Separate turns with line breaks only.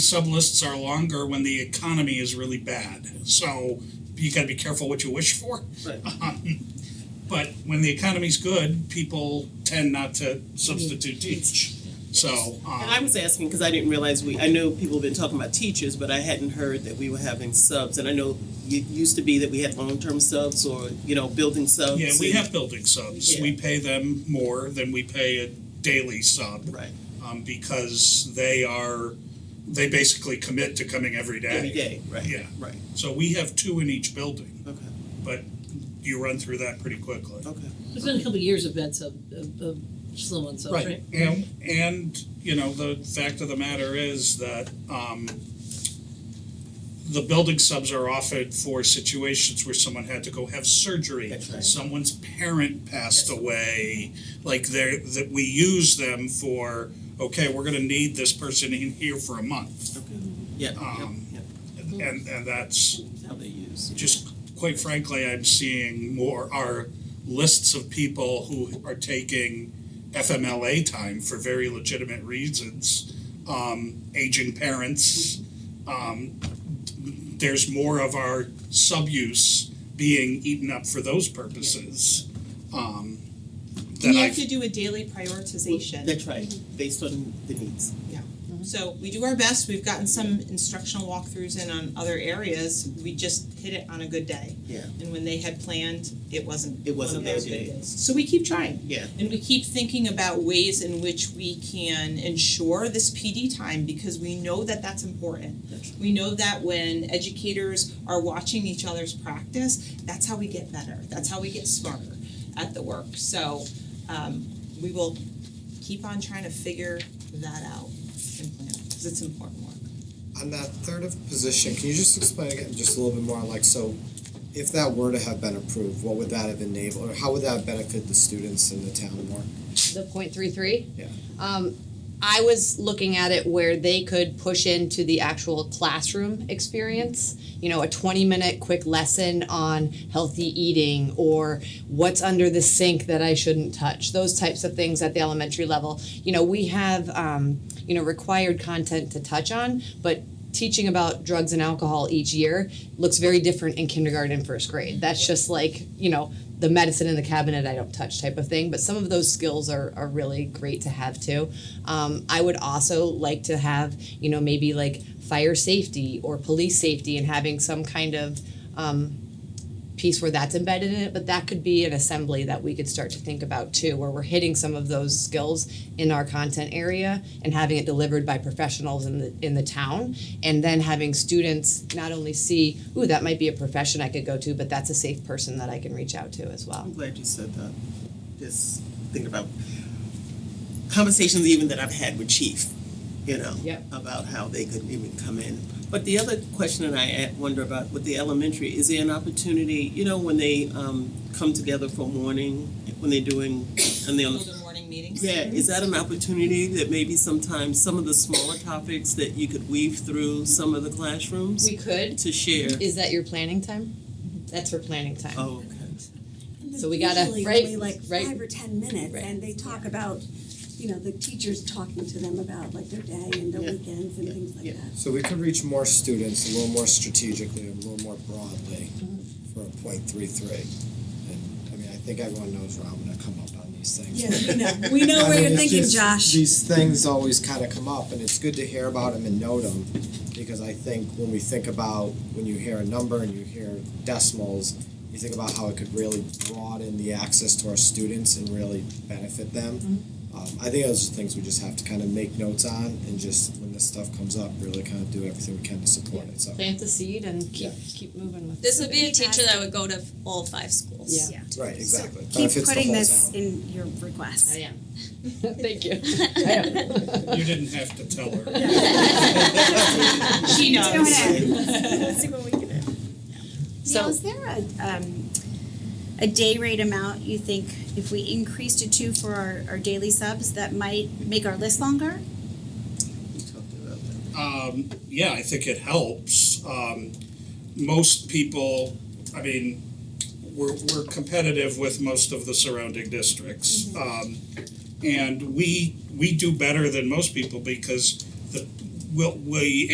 Sublists are longer when the economy is really bad, so you gotta be careful what you wish for.
Right.
Um, But when the economy's good, people tend not to substitute teach, so,
And I
um,
was asking because I didn't realize we, I know people have been talking about teachers, but I hadn't heard that we were having subs. And I know it used to be that we had long-term subs or, you know, building subs.
yeah, we have building subs, we pay them more than we pay a daily sub.
Right,
um, because they are, they basically commit to coming every day.
every day, right.
Yeah.
Right,
So we have two in each building,
okay,
but you run through that pretty quickly.
okay.
It's been a couple of years of bed sub, of, of slow on subs, right?
And, and, you know, the fact of the matter is that, um, the building subs are offered for situations where someone had to go have surgery.
That's right.
Someone's parent passed
Yes.
away, like they're, that we use them for, okay, we're gonna need this person in here for a month.
Yeah,
Um,
yep,
And, and that's
yep, how they use.
just, quite frankly, I'm seeing more, are lists of people who are taking FMLA time for very legitimate reasons, um, aging parents. Um, there's more of our sub-use being eaten up for those purposes, um,
We
than
have
I've,
to do a daily prioritization.
That's right, based on the needs.
So we do our best, we've gotten some instructional walkthroughs in on other areas, we just hit it on a good day.
Yeah.
And when they had planned, it wasn't
It wasn't
one of their
those
good
days.
days. So we keep trying.
Yeah,
And we keep thinking about ways in which we can ensure this PD time because we know that that's important.
That's-
We know that when educators are watching each other's practice, that's how we get better, that's how we get smarter at the work. So um we will keep on trying to figure that out and plan, because it's important work.
On that third of position, can you just explain again just a little bit more, like, so if that were to have been approved, what would that have enabled, or how would that benefit the students in the town more?
the point three three.
Yeah.
Um, I was looking at it where they could push into the actual classroom experience. You know, a twenty minute quick lesson on healthy eating or what's under the sink that I shouldn't touch. Those types of things at the elementary level. You know, we have um, you know required content to touch on, but teaching about drugs and alcohol each year looks very different in kindergarten and first grade. That's just like, you know, the medicine in the cabinet I don't touch type of thing. But some of those skills are, are really great to have too. Um, I would also like to have, you know, maybe like fire safety or police safety and having some kind of um, piece where that's embedded in it. But that could be an assembly that we could start to think about too, where we're hitting some of those skills in our content area and having it delivered by professionals in the in the town and then having students not only see, ooh, that might be a profession I could go to, but that's a safe person that I can reach out to as well.
I'm glad you said that. Just think about conversations even that I've had with Chief, you know,
Yep.
about how they couldn't even come in. But the other question that I a- wonder about with the elementary is there an opportunity, you know, when they um, come together for morning, when they're doing, and they're on the
Those are morning meetings.
yeah, is that an opportunity that maybe sometimes some of the smaller topics that you could weave through some of the classrooms
We could.
to share?
Is that your planning time? That's for planning time.
Oh, okay.
So we gotta-
Usually
right,
only like
right.
five or ten minutes,
Right.
and they talk about, you know, the teachers talking to them about like their day and their
Yeah.
weekends and things
Yeah.
like that.
So we could reach more students a little more strategically, a little more broadly for a point three three. And, I mean, I think everyone knows where I'm gonna come up on these things.
Yes, we know, we know where
I mean,
you're
it's
thinking,
just-
Josh.
These things always kind of come up, and it's good to hear about them and note them, because I think when we think about, when you hear a number and you hear decimals, you think about how it could really broaden the access to our students and really benefit them.
Mm-hmm.
Um, I think those are things we just have to kind of make notes on, and just when this stuff comes up, really kind of do everything we can to support it, so.
Plant the seed and keep
Yeah.
keep moving with
This would be a
Fantastic.
teacher that would go to all five schools.
Yeah.
Right, exactly,
Keep
benefits the whole town.
putting this in your requests.
I am. Thank you. I am.
you didn't have to tell her.
She knows.
Doing it. Let's see what we can do.
So-
Now, is there a, um, a day rate amount you think if we increase to two for our, our daily subs, that might make our list longer?
we talked about that.
Um, yeah, I think it helps. Um, most people, I mean, we're, we're competitive with most of the surrounding districts. Um, and we, we do better than most people because the, we'll, we